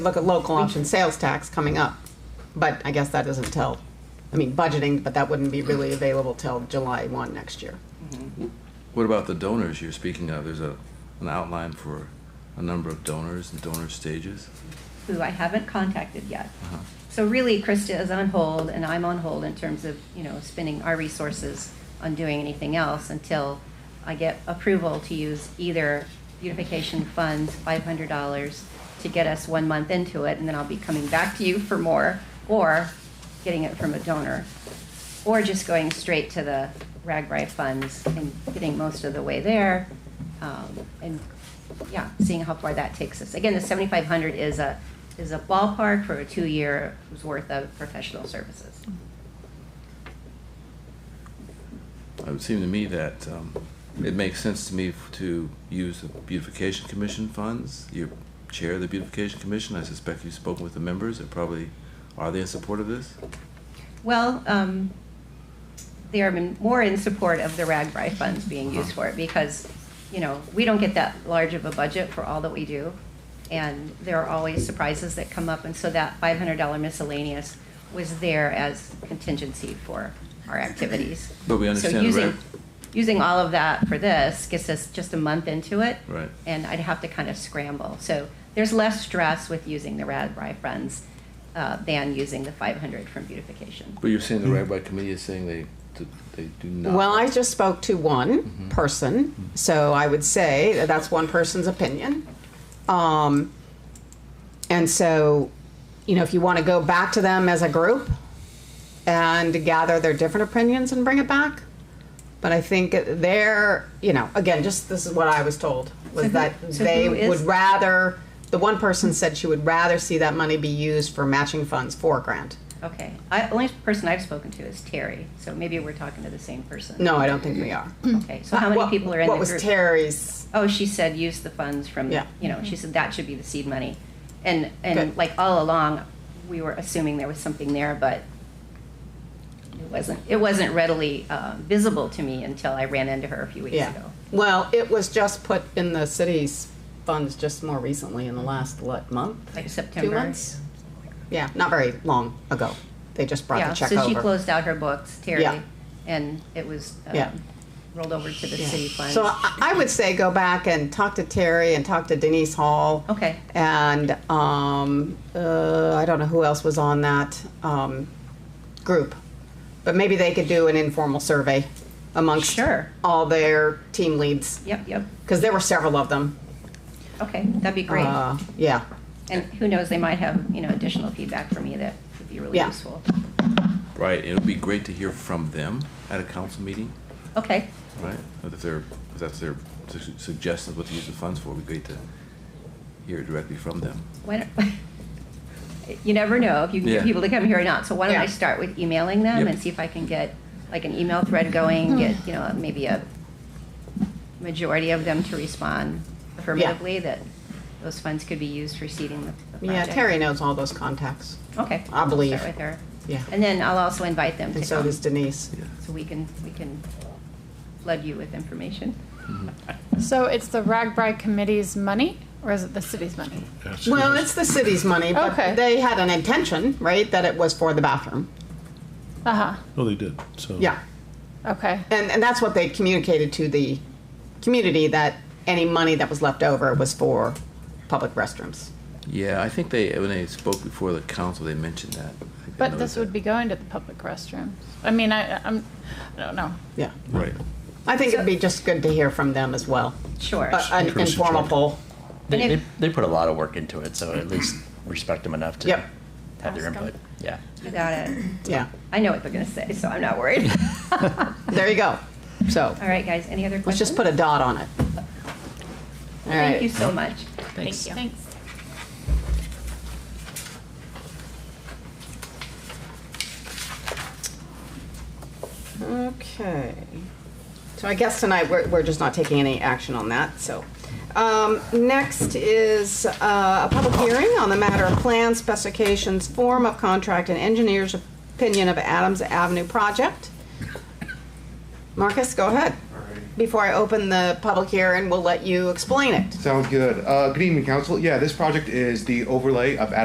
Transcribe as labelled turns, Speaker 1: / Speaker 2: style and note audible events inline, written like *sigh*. Speaker 1: look at local option sales tax coming up, but I guess that isn't till, I mean, budgeting, but that wouldn't be really available till July 1 next year.
Speaker 2: What about the donors you're speaking of? There's a, an outline for a number of donors and donor stages.
Speaker 3: who I haven't contacted yet. So really, Krista is on hold, and I'm on hold in terms of, you know, spending our resources on doing anything else until I get approval to use either beautification funds, five hundred dollars, to get us one month into it, and then I'll be coming back to you for more, or getting it from a donor, or just going straight to the Ragbri funds and getting most of the way there, um, and yeah, seeing how far that takes us. Again, the seventy-five hundred is a, is a ballpark for a two-year's worth of professional services.
Speaker 2: It would seem to me that um, it makes sense to me f- to use the beautification commission funds. You chair of the beautification commission. I suspect you've spoken with the members. They're probably are they in support of this?
Speaker 3: Well, um, they are in- more in support of the RAGBRAI funds
Speaker 2: Uh-huh.
Speaker 3: being used for it because, you know, we don't get that large of a budget for all that we do. And there are always surprises that come up, and so that five hundred dollar miscellaneous was there as contingency for our activities.
Speaker 2: But we understand
Speaker 3: So
Speaker 2: the
Speaker 3: using,
Speaker 2: rag-
Speaker 3: using all of that for this gets us just a month into it.
Speaker 2: Right.
Speaker 3: And I'd have to kind of scramble. So there's less stress with using the RAGBRAI funds uh, than using the five hundred from beautification.
Speaker 2: But you're saying the rabbi committee is saying they d- they do not.
Speaker 1: Well, I just spoke to one person, so I would say that that's one person's opinion. Um, And so, you know, if you want to go back to them as a group and gather their different opinions and bring it back. But I think they're, you know, again, just this is what I was told
Speaker 3: So
Speaker 1: was
Speaker 3: who-
Speaker 1: that
Speaker 3: so
Speaker 1: they
Speaker 3: who is-
Speaker 1: would rather, the one person said she would rather see that money be used for matching funds, four grand.
Speaker 3: Okay. I, only person I've spoken to is Terry, so maybe we're talking to the same person.
Speaker 1: No, I don't think we are.
Speaker 3: Okay, so how many
Speaker 1: What-
Speaker 3: people are in the
Speaker 1: What
Speaker 3: group?
Speaker 1: was Terry's
Speaker 3: Oh, she said use the funds from,
Speaker 1: Yeah.
Speaker 3: you know, she said that should be the seed money. And, and
Speaker 1: Good.
Speaker 3: like all along, we were assuming there was something there, but it wasn't, it wasn't readily uh, visible to me until I ran into her a few weeks
Speaker 1: Yeah.
Speaker 3: ago.
Speaker 1: Well, it was just put in the city's funds just more recently
Speaker 3: Mm-hmm.
Speaker 1: in the last, what, month?
Speaker 3: Like September.
Speaker 1: Two months? Yeah, not very long ago. They just brought the check
Speaker 3: Yeah, so she
Speaker 1: over.
Speaker 3: closed out her books,
Speaker 1: Yeah.
Speaker 3: Terry, and it was um,
Speaker 1: Yeah.
Speaker 3: rolled over to the city funds.
Speaker 1: So I I would say go back and talk to Terry and talk to Denise Hall.
Speaker 3: Okay.
Speaker 1: And um, uh, I don't know who else was on that um, group. But maybe they could do an informal survey amongst
Speaker 3: Sure.
Speaker 1: all their team leads.
Speaker 3: Yep, yep.
Speaker 1: Because there were several of them.
Speaker 3: Okay, that'd be great.
Speaker 1: Uh, Yeah.
Speaker 3: And who knows, they might have, you know, additional feedback for me that would be really
Speaker 1: Yeah.
Speaker 3: useful.
Speaker 2: right. It would be great to hear from them at a council meeting.
Speaker 3: Okay,
Speaker 2: Right. If they're if that's their su- suggestions what to use the funds for, it would be great to hear it directly from them.
Speaker 3: why don't, *laughs* you never know if you can
Speaker 2: Yeah.
Speaker 3: get people to come here or not, so why don't I
Speaker 1: Yeah.
Speaker 3: start with emailing them
Speaker 2: Yep.
Speaker 3: and see if I can get, like, an email thread going,
Speaker 1: Hmm.
Speaker 3: get, you know, maybe a majority of them to respond affirmatively that those funds could be used for seeding the the
Speaker 1: Yeah,
Speaker 3: project.
Speaker 1: Terry knows all those contacts.
Speaker 3: Okay.
Speaker 1: I believe.
Speaker 3: Start with her.
Speaker 1: Yeah.
Speaker 3: And then I'll also invite them to
Speaker 1: And so
Speaker 3: come,
Speaker 1: does Denise.
Speaker 2: Yeah.
Speaker 3: so we can, we can flood you with information.
Speaker 4: So it's the Ragbri Committee's money, or is it the city's money?
Speaker 1: Well, it's the city's money,
Speaker 4: Okay.
Speaker 1: but they had an intention, right, that it was for the bathroom.
Speaker 4: Uh huh.
Speaker 5: Well, Oh, they did, so.
Speaker 1: Yeah.
Speaker 4: Okay.
Speaker 1: And, and that's what they communicated to the community, that any money that was left over was for public restrooms.
Speaker 2: Yeah, I think they, when they spoke before the council, they mentioned that. I think I
Speaker 4: But
Speaker 2: noticed
Speaker 4: this would
Speaker 2: that.
Speaker 4: be going to the public restrooms. I mean, I, I'm, I don't know.
Speaker 1: Yeah.
Speaker 2: Right.
Speaker 1: I think it'd be just good to hear from them as well.
Speaker 3: Sure.
Speaker 1: Uh, An
Speaker 5: Interesting.
Speaker 1: informal poll.
Speaker 3: And
Speaker 6: They,
Speaker 3: if-
Speaker 6: they, they put a lot of work into it, so at least respect them enough to
Speaker 1: Yep.
Speaker 6: have their
Speaker 4: Ask 'em.
Speaker 6: input. Yeah.
Speaker 3: I got it.
Speaker 1: Yeah.
Speaker 3: I know what they're going to say, so I'm
Speaker 2: *laughs*
Speaker 3: not worried.
Speaker 1: There you go. So
Speaker 3: All right, guys, any other questions?
Speaker 1: let's just put a dot on it. All
Speaker 3: Thank you
Speaker 1: right.
Speaker 3: so much.
Speaker 6: Thanks.
Speaker 4: Thanks.
Speaker 1: Okay. So I guess tonight, we're, we're just not taking any action on that, so. Um, next is uh, a public hearing on the matter of plans, specifications, form of contract, and engineer's opinion of Adams Avenue project. Marcus, go ahead.
Speaker 7: Alrighty.
Speaker 1: before I open the public hearing, we'll let you explain it.
Speaker 5: Sounds good. Uh, good evening, council. Yeah, this project is the overlay of